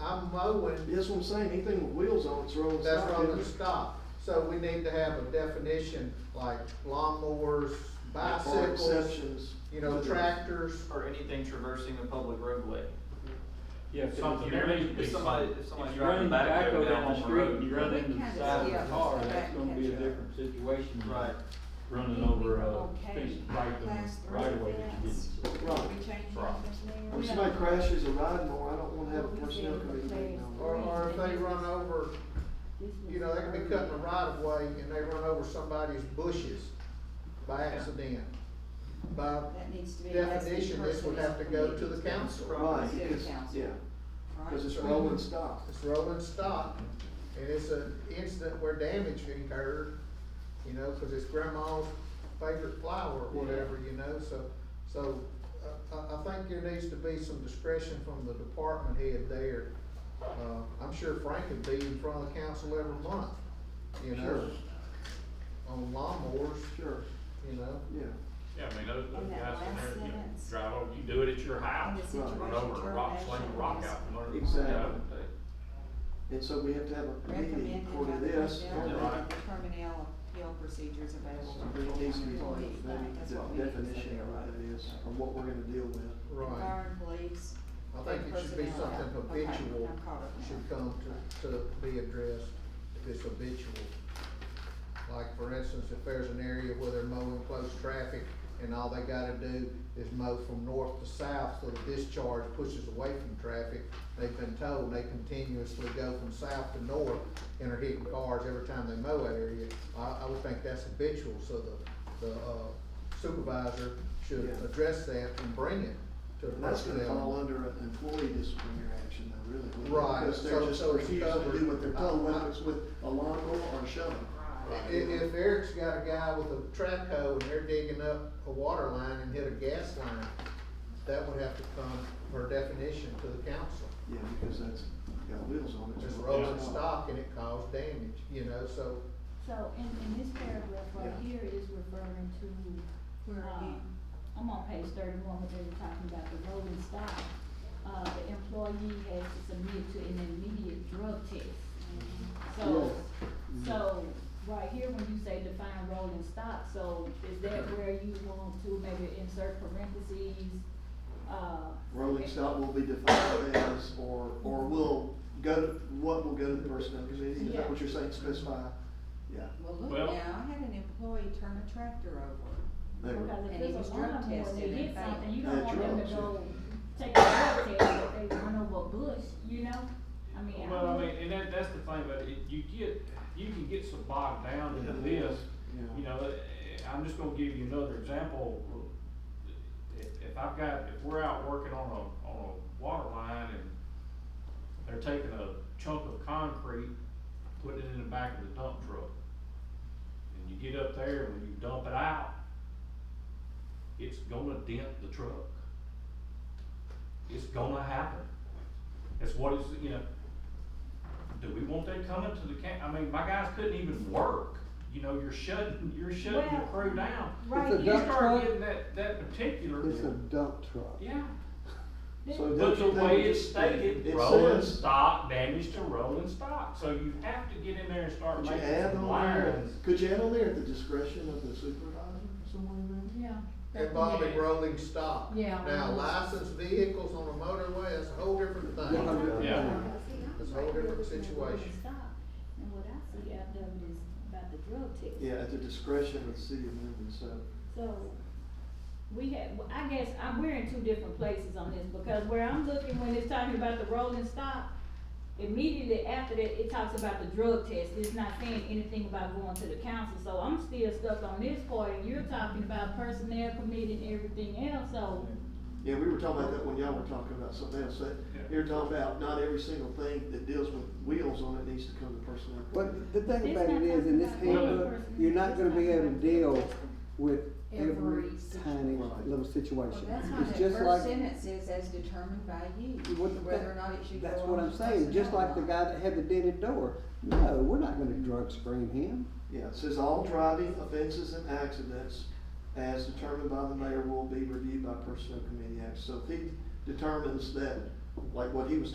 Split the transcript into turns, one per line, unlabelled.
I'm mowing,
That's what I'm saying, anything with wheels on it's rolling
that's
stock.
wrong
isn't
to
it?
stop. So we need to have a definition, like lawnmowers,
There are
bicycles,
Exceptions.
you know, tractors.
or anything traversing a public roadway.
Yeah, 'cause
Something,
if you run-
if somebody- if somebody's
you run
driving a backhoe down
the
on the
street
road.
and You run
We
into the
kinda
side of
skip
the car,
the
that's gonna be a
back catch up.
different situation. than
Right.
Running over a piece of pipe in the right away that you didn't.
Right.
We changed
Right.
numbers there.
If somebody crashes a ride more, I don't wanna have a personnel committee meeting on
Or, or if they run over, you know, they can be cutting a right of way and they run over somebody's bushes by accident. By
That needs to be. that's the
definition, this would have to go to the
personnel
council.
it. Right,
City
because,
council.
yeah, cause it's
Right.
rolling stock.
It's rolling stock, and it's an incident where damage incurred, you know, cause it's grandma's favorite flower or whatever, you know, so, so, uh, I, I think there needs to be some discretion from the department head there. Uh, I'm sure Frank would be in front of the council every month, you know, on lawnmowers,
Sure, sure,
you know,
yeah.
Yeah, I mean, those, those
And that
guys,
last
in there, you know,
sentence.
drive over, you do it at your house,
And the
run
Right.
situation
over a rock, sling a rock out
termination
from under.
Exactly.
Yeah, they-
And so we have to have
is
a meeting
Recommended
according
by
to
the
this.
personnel,
Yeah.
that the personnel appeal procedures available.
So it needs to be part of that,
That's what we
that
need to
definition
say.
of what it is, or what we're gonna deal with.
right.
Fire and police.
I think it should be
personnel.
something
Okay, I'm
habitual
caught up now.
should come to, to be addressed, if it's habitual. Like, for instance, if there's an area where they're mowing close traffic and all they gotta do is mow from north to south, so the discharge pushes away from traffic, they've been told they continuously go from south to north and are hitting cars every time they mow that area, I, I would think that's habitual, so the, the uh, supervisor should
Yeah.
address that and bring it to
And that's gonna
personnel.
fall under an employee disciplinary action though, really. wouldn't it?
Right,
Because
so-
they're just
so it's
refusing to do what they're told,
covered.
whether it's with a lawnmower or a shovel.
I- If Eric's got a guy with a track hoe and they're digging up a water line and hit a gas line, that would have to come per definition to the council.
Yeah, because that's got wheels on it.
It's rolling stock and it caused damage, you know, so,
So, in, in this paragraph right
Yeah.
here is referring to,
Where are you?
um, I'm on page thirty-one, where they were talking about the rolling stock. Uh, the employee has to submit to an immediate drug test. So, so, right here, when you say define rolling stock, so is that where you want to maybe insert parentheses, uh?
Rolling stock will be defined as, or, or will go, to what will go to the personnel committee, is that what you're saying, specify? Yeah,
Well, look,
Well-
now, I had an employee turn a tractor over.
they were,
Because
And
if
he was
there's a
drug
lawnmower,
tested
they
and
hit
found-
something, you
Yeah,
don't want them to
drugs, yeah.
go take a drug test if they run over a bush, you know? I mean,
Well, I
I,
mean, and that, that's the thing, but it, you get, you can get so bogged down into this, you
yeah.
know, eh, I'm just gonna give you another example. If, if I've got, if we're out working on a, on a water line and they're taking a chunk of concrete, putting it in the back of the dump truck. And you get up there, and when you dump it out, it's gonna dent the truck. It's gonna happen. That's what is, you know, do we want that coming to the camp? I mean, my guys couldn't even work. You know, you're shutting, you're shutting your
Well,
crew down.
right
You
here,
start getting that, that particular,
dump truck.
yeah.
So
But the
that- that
way
would-
it's stated,
it
rolling
says-
stock, damage to rolling stock, so you have to get in there and start
Could you
making
add
some
on there,
lines.
could you add on there at the discretion of the supervisor or someone in there?
yeah.
involving rolling stock.
Yeah.
Now, licensed vehicles on a motorway, that's a whole different
Yeah.
thing.
Yeah.
It's a whole different situation.
And what I see out of it is about the drug test.
Yeah, at the discretion of the city of Minden, so,
So, we had, well, I guess, I'm, we're in two different places on this, because where I'm looking, when it's talking about the rolling stock, immediately after that, it talks about the drug test, it's not saying anything about going to the council, so I'm still stuck on this part, and you're talking about personnel committee and everything else, so.
yeah, we were talking about that when y'all were talking about something else, that,
Yeah.
you're talking about not every single thing that deals with wheels on it needs to come to personnel.
Well, the thing
It's
about
not
it is, in this
talking about
handbook,
one person,
you're not
it's
gonna be
talking
able to
about-
deal with every
Every situ-
tiny
Right.
little
Well,
situation.
that's why
It's
that
just
first
like,
sentence is as determined by you,
What-
whether or not it should go
that's
on
what
to
I'm saying, just
personnel or
like the
not.
guy that had the dented door. No, we're not gonna drug screen him.
Yeah, it says all driving offenses and accidents as determined by the mayor will be reviewed by personnel committee acts. So if he determines that, like what he was